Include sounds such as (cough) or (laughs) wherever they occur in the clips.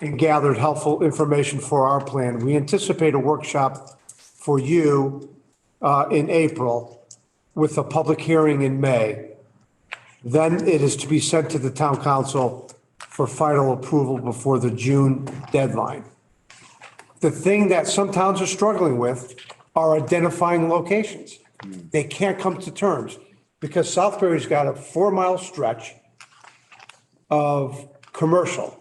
and gathered helpful information for our plan. We anticipate a workshop for you uh, in April with a public hearing in May. Then it is to be sent to the town council for final approval before the June deadline. The thing that some towns are struggling with are identifying locations. They can't come to terms because Southbury's got a four-mile stretch of commercial.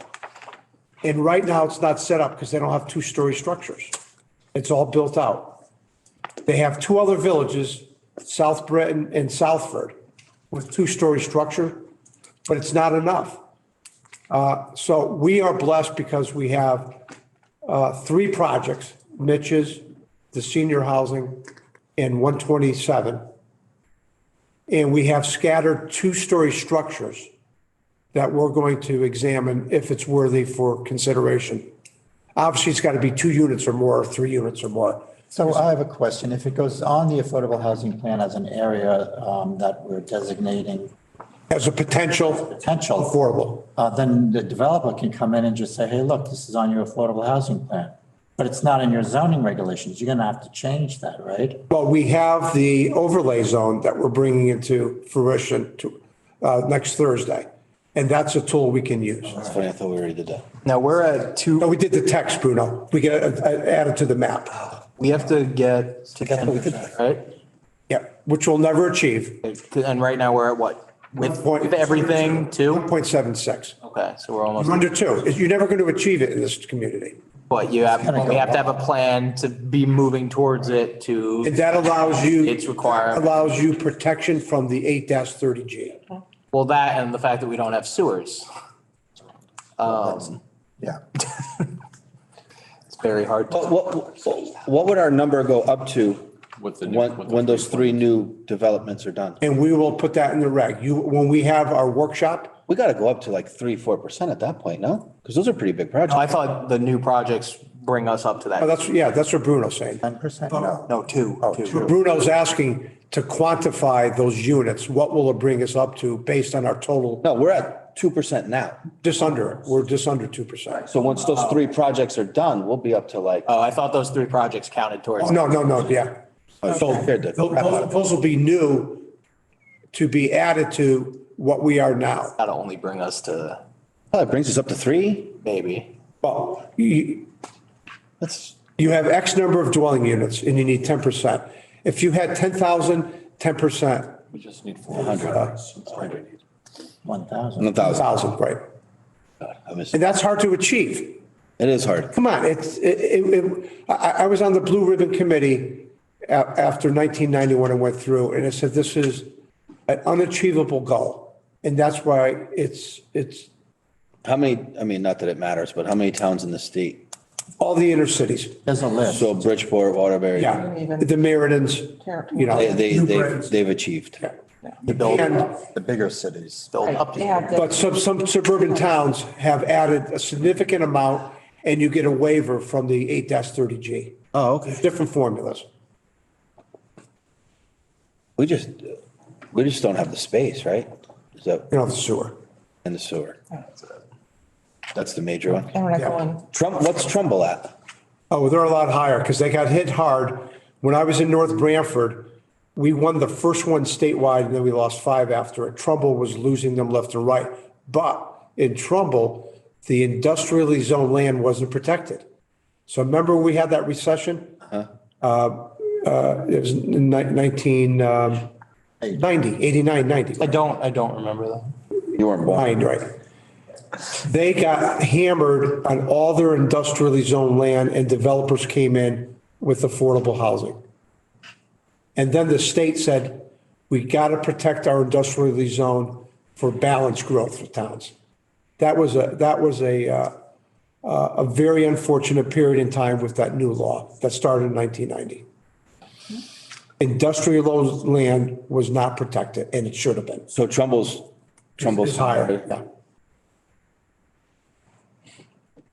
And right now, it's not set up because they don't have two-story structures. It's all built out. They have two other villages, South Breton and Southford, with two-story structure, but it's not enough. Uh, So we are blessed because we have uh, three projects, niches, the senior housing, and 127. And we have scattered two-story structures that we're going to examine if it's worthy for consideration. Obviously, it's got to be two units or more, or three units or more. So I have a question. If it goes on the affordable housing plan as an area um, that we're designating As a potential potential, affordable. uh, then the developer can come in and just say, hey, look, this is on your affordable housing plan. But it's not in your zoning regulations. You're going to have to change that, right? Well, we have the overlay zone that we're bringing into fruition to, uh, next Thursday. And that's a tool we can use. That's funny, I thought we already did that. Now we're at No, two, we did the text, Bruno. We get, uh, added to the map. we have to get to ten percent, right? Yeah, which we'll never achieve. And right now we're at what? With, Point- with everything too? 1.76. Okay, so we're almost, Under two. You're never going to achieve it in this community. but you have, gonna we go have to have a plan to be moving towards it And to that allows you. its requirement. Allows you protection from the eight thirty G. Well, that and the fact that we don't have sewers. Um, Yeah. (laughs) it's very hard to. What, what, what would our number go up to With the new- when, with the when those three new developments are done? And we will put that in the reg. You, when we have our workshop, We got to go up to like three, four percent at that point, no? Because those are pretty big projects. I thought the new projects bring us up to oh, that. that's, yeah, that's what Bruno's saying. Ten percent? No. No, two. two. Bruno's asking to quantify those units. What will it bring us up to based on our total? No, we're at two percent now. Just under, it. we're just under two percent. So once those three projects are done, we'll be up to like, Uh, Oh, I thought those three projects counted towards. Oh, No, no, no, yeah. So Scared the tho- crap out of those those will be new to be added to what we are now. That'll only bring us to oh, that brings us up to three? maybe. Well, you, That's, you have X number of dwelling units and you need ten percent. If you had 10,000, 10%, We just need four hundred. uh, One thousand. a thousand, 1,000, right? I missed And it. that's hard to achieve. It is hard. Come on, it's, it, it, it- I, I was on the Blue Ribbon Committee a- after 1991 and went through, and I said, this is an unachievable goal. And that's why it's, it's How many, I mean, not that it matters, but how many towns in the state? all the inner cities, There's a list. So Bridgeport, Waterbury. yeah, the Meridans, you know. They, they, New they've, Britons. they've achieved. Yeah. The build, And, The bigger cities. build up. They have but the- some, some suburban towns have added a significant amount, and you get a waiver from the 8-30G. Oh, okay. Different formulas. We just, we just don't have the space, right? Is that, you know, the sewer. and the sewer. That's the major one. And we're not going, Trump, what's Trumbull at? Oh, they're a lot higher because they got hit hard. When I was in North Branford, we won the first one statewide and then we lost five after it. Trumbull was losing them left and right. But in Trumbull, the industrially zoned land wasn't protected. So remember we had that recession? Uh, uh, It was in ni- um, 1990, 89, 90. I don't, I don't remember them. You weren't born. Mind, right. They got hammered on all their industrially zoned land and developers came in with affordable housing. And then the state said, we got to protect our industrially zoned for balanced growth for towns. That was a, that was a, uh, uh, a very unfortunate period in time with that new law that started in 1990. Industrial land was not protected and it should have been. So Trumbull's, Trumbull's. It's higher, yeah.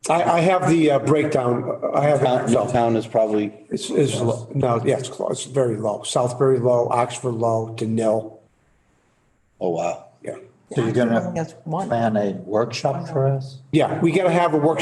I, I have the uh, breakdown, I have, it Town, myself. town is probably, it's, it's, low. no, yeah, it's close, it's very low. Southbury low, Oxford low, Denil, oh, wow. yeah. So you're gonna that's one. plan a workshop for us? Yeah, we got to have a workshop